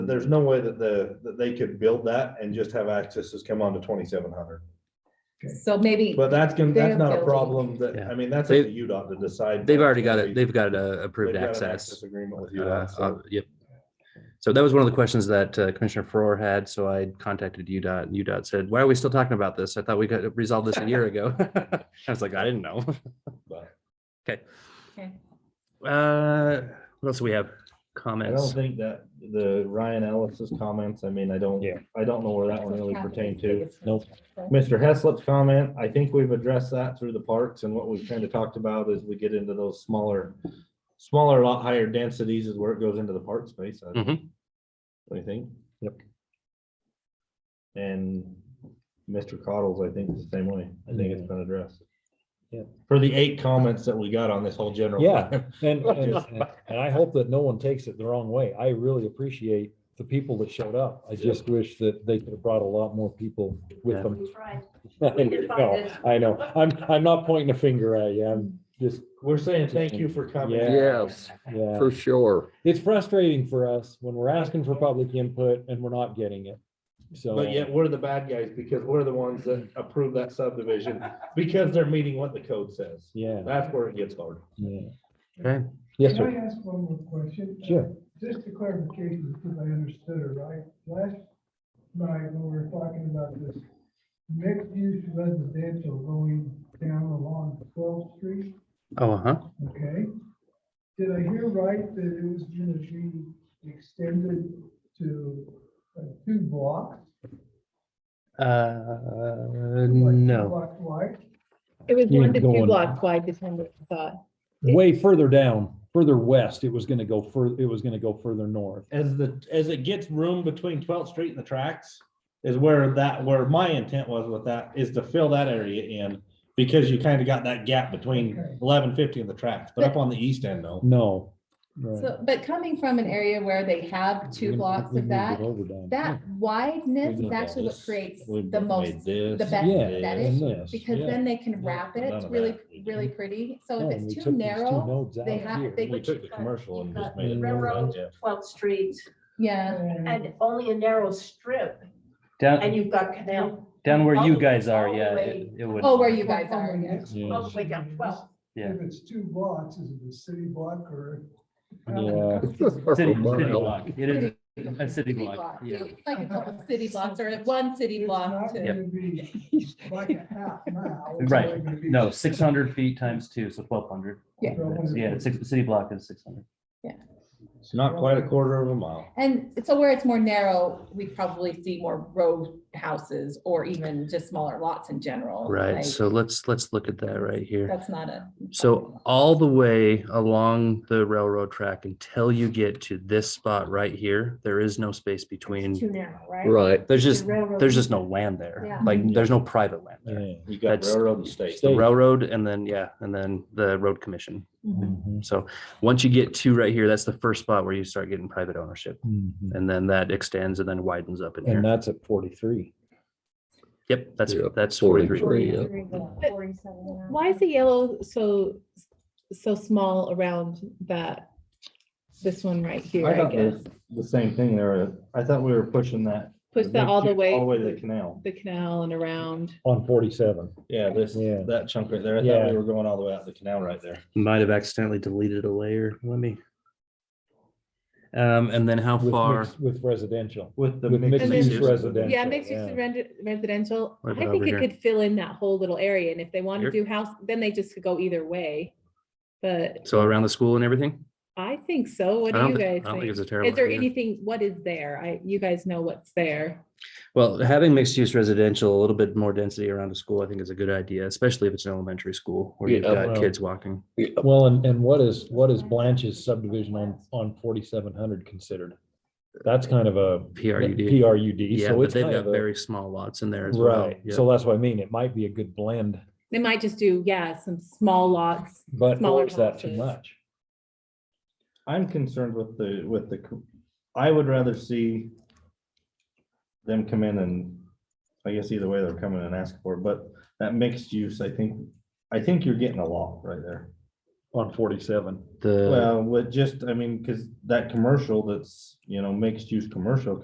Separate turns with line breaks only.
there's no way that the, that they could build that and just have accesses come on to twenty-seven hundred.
So maybe,
But that's gonna, that's
They're
not a
building.
problem that, I
Yeah.
mean, that's up to
They-
UDOT to decide.
They've already got
They've
it, they've got a approved
got an
access.
Agreement with
Uh,
UDOT,
uh,
so
Yep. So that was one of the questions that uh, Commissioner Farrar had, so I contacted UDOT, and UDOT said, why are we still talking about this? I thought we got resolved this a year ago. I was like, I didn't know.
but
okay.
Uh, What else do we have?
I don't
Comments?
think that the Ryan Ellis's comments, I mean, I don't,
Yeah.
I don't know where that one really pertained to.
Nope.
Mr. Heslop's comment, I think we've addressed that through the parks and what we've kind of talked about as we get into those smaller, smaller, lot higher densities is where it goes into the park space. I
Mhm.
What do you think?
Yep.
And Mr. Cottle's, I think, is the same way. I think
Mm-hmm.
it's been addressed.
Yep.
For the eight comments that we got on this whole general.
Yeah.
plan.
And, and and I hope that no one takes it the wrong way. I really appreciate the people that showed up. I just wish that they could have brought a lot more people with
Yeah.
them.
Right.
I know, I know. I'm, I'm not pointing a finger at you. I'm just,
We're saying thank you for coming.
Yeah.
Yes,
yeah.
for sure.
It's frustrating for us when we're asking for public input and we're not getting it. So.
But yet we're the bad guys because we're the ones that approve that subdivision because they're meeting what the code says.
Yeah,
That's where it gets hard.
yeah.
Okay.
Yes,
Can
sir.
I ask one more question? Uh,
Sure.
Just a clarification, because I understood it right. Last night, when we were talking about this mixed-use residential going down along 12th Street,
Oh, uh-huh.
okay? Did I hear right that it was going to be extended to uh, two blocks?
Uh,
like two
no,
blocks wide?
It was
You're
one to two
going-
blocks wide, is what I thought.
Way further down, further west, it was gonna go fur, it was gonna go further north.
As the, as it gets room between twelfth street and the tracks is where that, where my intent was with that is to fill that area in. Because you kind of got that gap between
Okay.
eleven fifty and the tracks, but up on the east end though.
No. Right.
So, but coming from an area where they have
We-
two
we
blocks of
moved it
that,
over down.
that wideness is actually what creates the most, the best
Yeah,
aesthetic.
and this,
Because
yeah.
then they can wrap it,
None
it's
of
really,
that.
really pretty. So
No,
if it's too
we took these two
narrow,
nodes out
they
of
have-
here.
they-
We took the commercial and just made it.
Railroad,
Yeah.
12th Street,
yeah.
and only a narrow strip, and
down,
you've got canal
down where you
all-
guys are,
all the
yeah.
way-
it- it would-
Oh, where you guys are, yeah.
all the way down 12th.
Yeah.
If it's two blocks, is it a city block or?
Yeah.
It's just a
City city
mile.
block. It is a
City
city block,
block.
yeah.
Like a couple city blocks or one city
It's
block
not
to.
gonna be like a half mile. It's
Right.
only gonna be
No, six hundred feet times two, so twelve hundred.
Yeah.
Yeah, six, city block is six hundred.
It's not quite a quarter of a mile.
And so where it's more narrow, we probably see more row houses or even just smaller lots in general. like,
Right, so let's, let's look at that right here.
That's not a.
So all the way along the railroad track until you get to this spot right here, there is no space
Too
between.
narrow, right?
Right.
There's just,
Railroad.
there's just no land there.
Yeah.
Like, there's no private land there.
Yeah.
You got
That's-
railroad and state.
The railroad and then, yeah, and then the road commission.
Mhm.
Mm-hmm.
So once you get to right here, that's the first spot where you start getting private ownership.
Mhm.
And then that extends and then widens up in
And
here.
that's at forty-three.
Yep, that's,
Yeah,
that's
43.
43.
yeah.
43,
But
47 now.
Why is the yellow so, so small around that, this one right here,
I
I
thought
guess?
the, the same thing there. I thought we were pushing that.
Push that all the way,
All the way to the
to
canal.
the canal and around.
On forty-seven.
Yeah, this,
Yeah.
that chunk right there. I thought
Yeah.
we were going all the way out the canal right there.
Might have accidentally deleted a layer. Let me. Um, and then how
with
far?
mixed- With residential.
With the
With
mixed
mixed
use.
use
residential.
Yeah, mixed
yeah.
use resi- residential,
What
I
about
think
over
it
here?
could fill in that whole little area, and if they want
Here?
to do house, then they just could go either way. But
So around the school and everything?
I think so,
I
what do
don't
you
thi-
guys
I don't think
think?
it's a terrible
Is there
idea.
anything, what is there? I, you guys know what's there.
Well, having mixed use residential, a little bit more density around a school, I think is a good idea, especially if it's an elementary school where you've
Yeah,
got
well-
kids walking.
Well, and, and what is, what is Blanche's subdivision on, on forty-seven hundred considered? That's kind of a.
PRUD.
PRUD,
Yeah,
so
but
it's
they've
kind
got
of a.
very small lots in there as well.
Right,
Yeah.
so that's what I mean, it might be a good blend,
They might just do, yeah, some small lots,
but
Smaller
is that too
houses.
much?
I'm concerned with the, with the, co- I would rather see them come in and, I guess either way they're coming and ask for, it, but that mixed use, I think, I think you're getting a lot right there.
on forty-seven.
The
Well, with just, I mean, because that commercial that's, you know, mixed use commercial